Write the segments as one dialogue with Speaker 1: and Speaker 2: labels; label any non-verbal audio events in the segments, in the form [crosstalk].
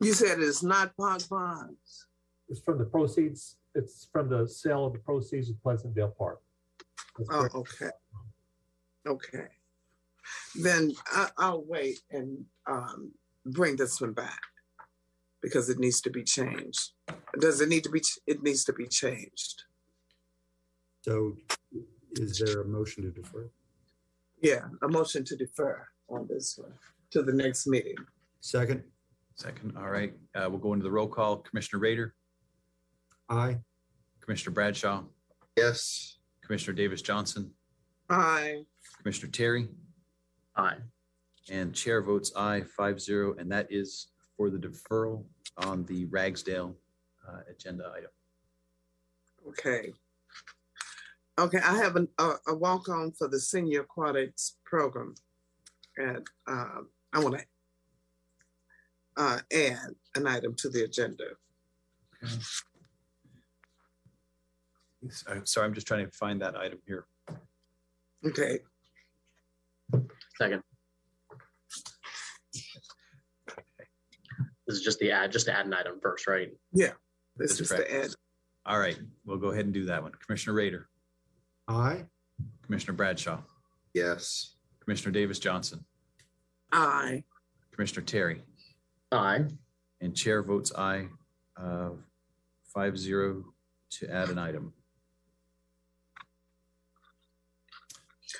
Speaker 1: You said it's not Pog Ponds.
Speaker 2: It's from the proceeds, it's from the sale of the proceeds of Pleasantdale Park. That's
Speaker 1: Oh,
Speaker 2: correct.
Speaker 1: okay. Okay. Then I, I'll wait and um, bring this one back because it needs to be changed. Does it need to be? ch- It needs to be changed.
Speaker 3: So is there a motion to defer?
Speaker 1: Yeah, a motion to defer on this one to the next meeting.
Speaker 3: Second,
Speaker 4: Second, all right, uh, we'll go into the roll call. Commissioner Raider,
Speaker 3: aye.
Speaker 4: Commissioner Bradshaw,
Speaker 5: Yes.
Speaker 4: Commissioner Davis Johnson,
Speaker 1: Aye.
Speaker 4: Commissioner Terry,
Speaker 5: Aye.
Speaker 4: and Chair votes aye, five zero, and that is for the deferral on the Ragsdale uh, agenda item.
Speaker 1: Okay. Okay, I have an, a, a walk on for the senior aquatics program. And um, I want to uh, add an item to the agenda.
Speaker 4: So- Uh, Sorry, I'm just trying to find that item here.
Speaker 1: Okay,
Speaker 5: Second. This is just the add, just to add an item first, right?
Speaker 1: this
Speaker 4: That's
Speaker 1: is the
Speaker 4: correct.
Speaker 1: add.
Speaker 4: All right, we'll go ahead and do that one. Commissioner Raider,
Speaker 3: Aye.
Speaker 4: Commissioner Bradshaw,
Speaker 5: Yes.
Speaker 4: Commissioner Davis Johnson,
Speaker 1: Aye.
Speaker 4: Commissioner Terry,
Speaker 5: Aye.
Speaker 4: and Chair votes aye, uh, five zero to add an item.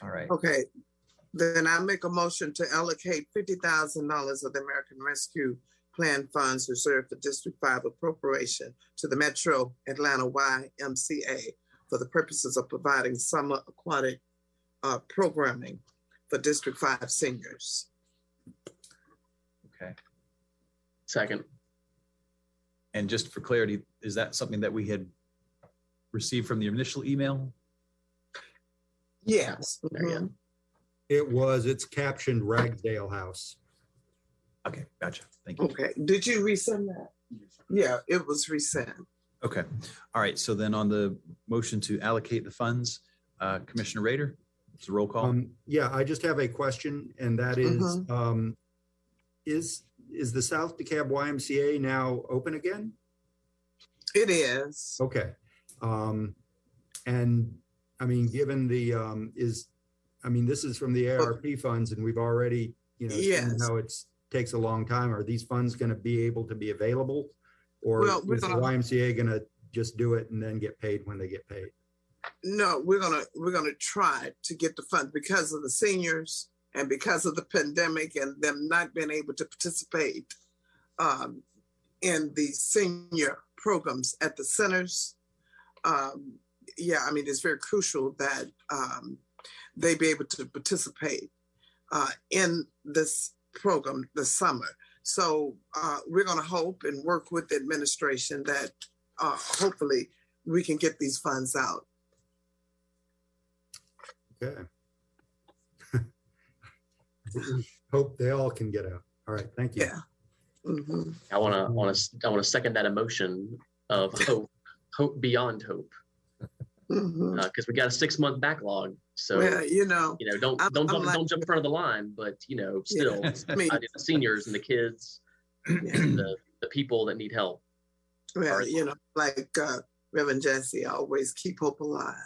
Speaker 4: All right.
Speaker 1: Okay, then I make a motion to allocate fifty thousand dollars of the American Rescue Plan funds reserved for District Five appropriation to the Metro Atlanta YMCA for the purposes of providing summer aquatic uh, programming for District Five seniors.
Speaker 4: Okay.
Speaker 5: Second.
Speaker 4: And just for clarity, is that something that we had received from the initial email?
Speaker 1: Yes.
Speaker 5: There you go.
Speaker 1: Mhm.
Speaker 3: It was, it's captioned Ragsdale House.
Speaker 4: Okay, gotcha. Thank you.
Speaker 1: Okay, did you resend that? Yeah, it was resent.
Speaker 4: Okay. All right. So then on the motion to allocate the funds, uh, Commissioner Raider, it's a roll call.
Speaker 3: Um, yeah, I just have a question and that is,
Speaker 1: Mhm.
Speaker 3: um, is, is the South DeKalb YMCA now open again?
Speaker 1: It is.
Speaker 3: Okay. Um, and I mean, given the, um, is, I mean, this is from the ARP funds and we've already, you know, seen
Speaker 1: Yes.
Speaker 3: how it's, takes a long time. Are these funds going to be able to be available? Or
Speaker 1: Well, we're
Speaker 3: is the
Speaker 1: gonna-
Speaker 3: YMCA going to just do it and then get paid when they get paid?
Speaker 1: no we're gonna we're gonna try to get the funds because of the seniors and because of the pandemic and them not being able to participate um, in the senior programs at the centers um, yeah i mean it's very crucial that um, they be able to participate uh, in this program this summer so uh, we're going to hope and work with the administration that uh, hopefully we can get these funds out
Speaker 3: Okay. [laughs] We Hope they all can get out. All right, thank you.
Speaker 1: Yeah. Mhm.
Speaker 5: I want to, want to, I want to second that emotion of hope, hope beyond hope,
Speaker 1: Mhm.
Speaker 5: because we got a six month backlog. Uh, So,
Speaker 1: Well, you know,
Speaker 5: you know, don't,
Speaker 1: I'm-
Speaker 5: don't,
Speaker 1: I'm
Speaker 5: jump,
Speaker 1: like-
Speaker 5: don't jump in front of the line, but you know, still,
Speaker 1: [laughs] I mean,
Speaker 5: I mean, the seniors and the kids, the, the people that need help.
Speaker 1: well, you know, like uh, Reverend Jesse, always keep hope alive.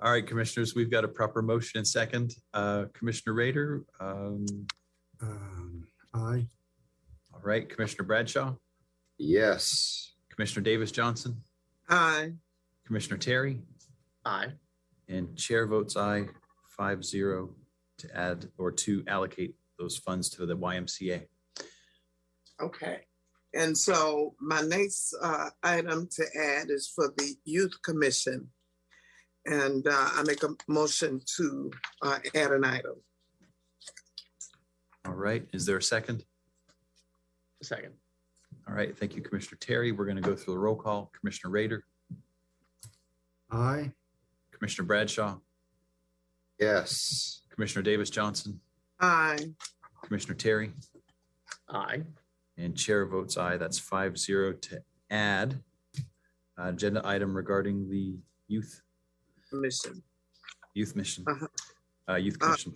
Speaker 4: All right, commissioners, we've got a proper motion and second. Uh, Commissioner Raider, um,
Speaker 3: Um, Aye,
Speaker 4: all right, Commissioner Bradshaw,
Speaker 6: Yes.
Speaker 4: Commissioner Davis Johnson,
Speaker 1: Aye.
Speaker 4: Commissioner Terry,
Speaker 5: Aye.
Speaker 4: and chair votes aye, five zero to add or to allocate those funds to the YMCA.
Speaker 1: Okay. And so my next uh, item to add is for the Youth Commission. And uh, I make a motion to uh, add an item.
Speaker 4: All right, is there a second?
Speaker 5: Second.
Speaker 4: All right, thank you, Commissioner Terry. We're going to go through the roll call. Commissioner Raider,
Speaker 3: aye.
Speaker 4: Commissioner Bradshaw,
Speaker 6: Yes.
Speaker 4: Commissioner Davis Johnson,
Speaker 1: Aye.
Speaker 4: Commissioner Terry,
Speaker 5: Aye.
Speaker 4: and Chair votes aye. That's five zero to add uh, agenda item regarding the youth,
Speaker 1: Commission.
Speaker 4: youth mission,
Speaker 1: Uh-huh.
Speaker 4: uh, youth
Speaker 1: Uh,
Speaker 4: commission.